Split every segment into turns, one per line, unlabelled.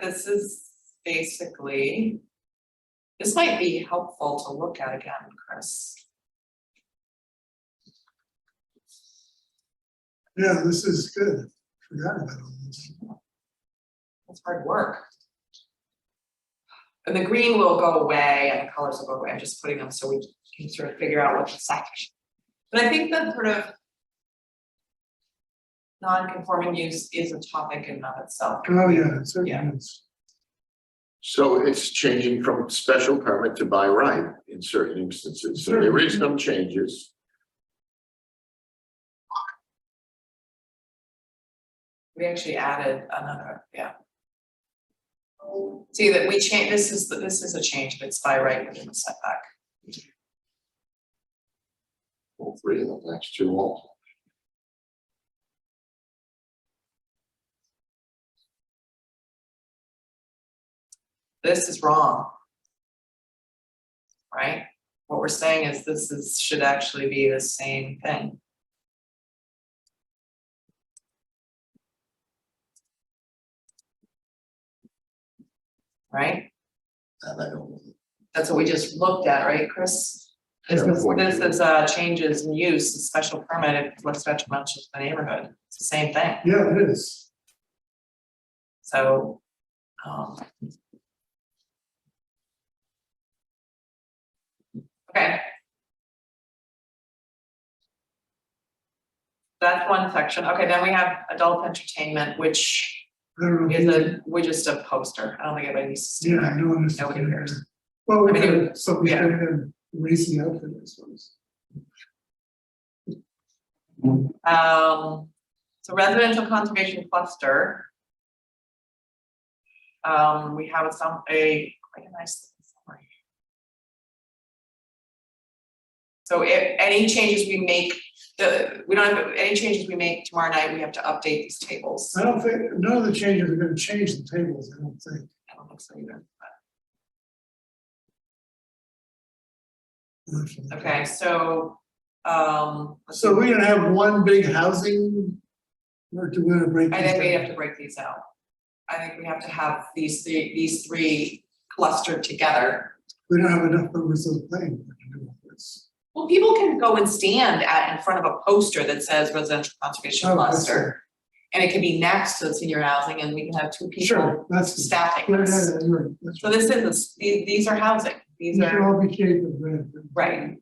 this is basically. This might be helpful to look at again, Chris.
Yeah, this is good. Forgot about all this.
That's hard work. And the green will go away and the colors will go away, I'm just putting them so we can sort of figure out what's section. But I think that sort of. Non-conforming use is a topic in and of itself.
Oh, yeah, it
Yeah.
certainly is.
So it's changing from special permit to by right in certain instances, so there is no changes.
We actually added another, yeah. See that we change, this is, the- this is a change, but it's by right within the setback.
All three of them, that's too old.
this is wrong. Right? What we're saying is this is, should actually be the same thing. Right?
And I don't.
That's what we just looked at, right, Chris? This is, this is, uh, changes in use, a special permit, if it looks detrimental to the neighborhood, it's the same thing,
Yeah, it is.
so, um. Okay. That's one section, okay, then we have adult entertainment, which
I don't know. if
is
you-
a, we're just a poster, I don't think anybody needs to see
Yeah,
that.
I know. it's-
Nobody cares.
Well, we
I mean, it
had something
yeah.
in racing out for this one.
Um, so residential conservation cluster. Um, we have some, a, quite a nice summary. So if any changes we make, the, we don't have, any changes we make tomorrow night, we have to update these tables.
I don't think, none of the changes are gonna change the tables, I don't think.
I don't think so either, but- okay, so, um. let's
So
see.
we're gonna have one big housing, or do we wanna break these
I
down?
think we have to break these out. I think we have to have these, three these three clustered together.
We don't have enough numbers of playing to do all this.
Well, people can go and stand at, in front of a poster that says residential conservation
Oh, that's
cluster. And it can be next to the senior housing and we can have two people
Sure, that's.
staffing
Yeah, yeah,
this.
yeah, you're right, that's
So
right.
this is, these, these are housing, these
These should
are,
all be shaded red.
right,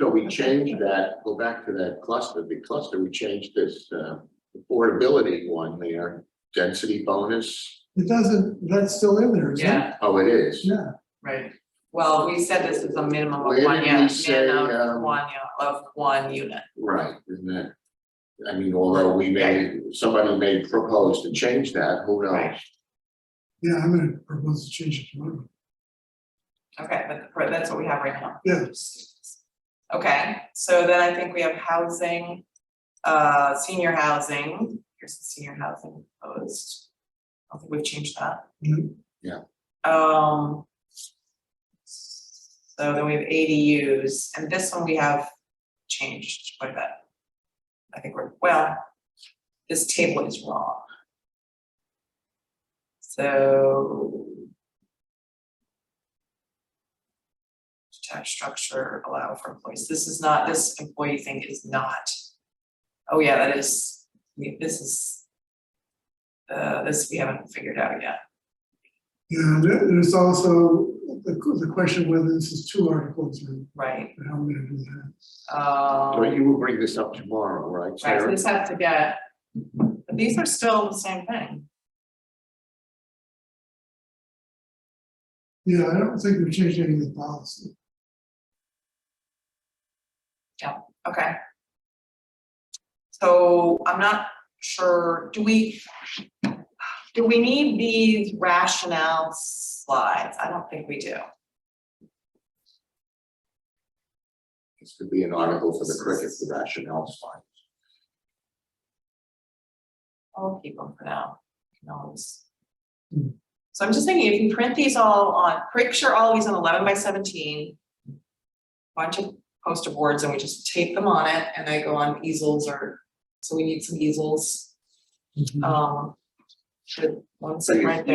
So we changed that, go back to that cluster, the cluster, we changed this uh, affordability one there, density bonus.
It doesn't, that's still in there, isn't it?
yeah,
Oh, it is.
Yeah.
right. Well, we said this is a minimum of
Where
one
did we
unit,
say,
minimum of
um,
one, u- of one unit.
Right, isn't that? I mean, although we may, somebody may propose to change that, who knows?
Right.
Yeah, I'm gonna propose to change it tomorrow.
Okay, but but that's what we have right now.
Yeah.
Okay, so then I think we have housing, uh, senior housing, here's the senior housing post. I think we've changed that.
Mhm.
Yeah.
Um. So then we have ADUs, and this one we have changed quite a bit. I think we're, well, this table is wrong. So. Detached structure allow for employees, this is not, this employee thing is not. Oh yeah, that is, we- this is. Uh, this we haven't figured out yet.
Yeah, there- there's also the, the question whether this is two articles or
Right,
how I'm gonna do that.
um,
So you will bring this up tomorrow, right,
right, so
Sarah?
this has to get, but these are still the same thing.
Yeah, I don't think we've changed any of the policy.
Okay. So I'm not sure, do we, do we need these rationale slides? I don't think we do.
This could be an article for the cricket, the rationale fine.
I'll keep them for now, you can always.
Hmm.
So I'm just thinking, if you print these all on, picture all these on eleven by seventeen. Bunch of poster boards and we just tape them on it and they go on easels or, Mm-hmm. Oh,
Hmm.
so we need some easels, um. Should, one sit right there.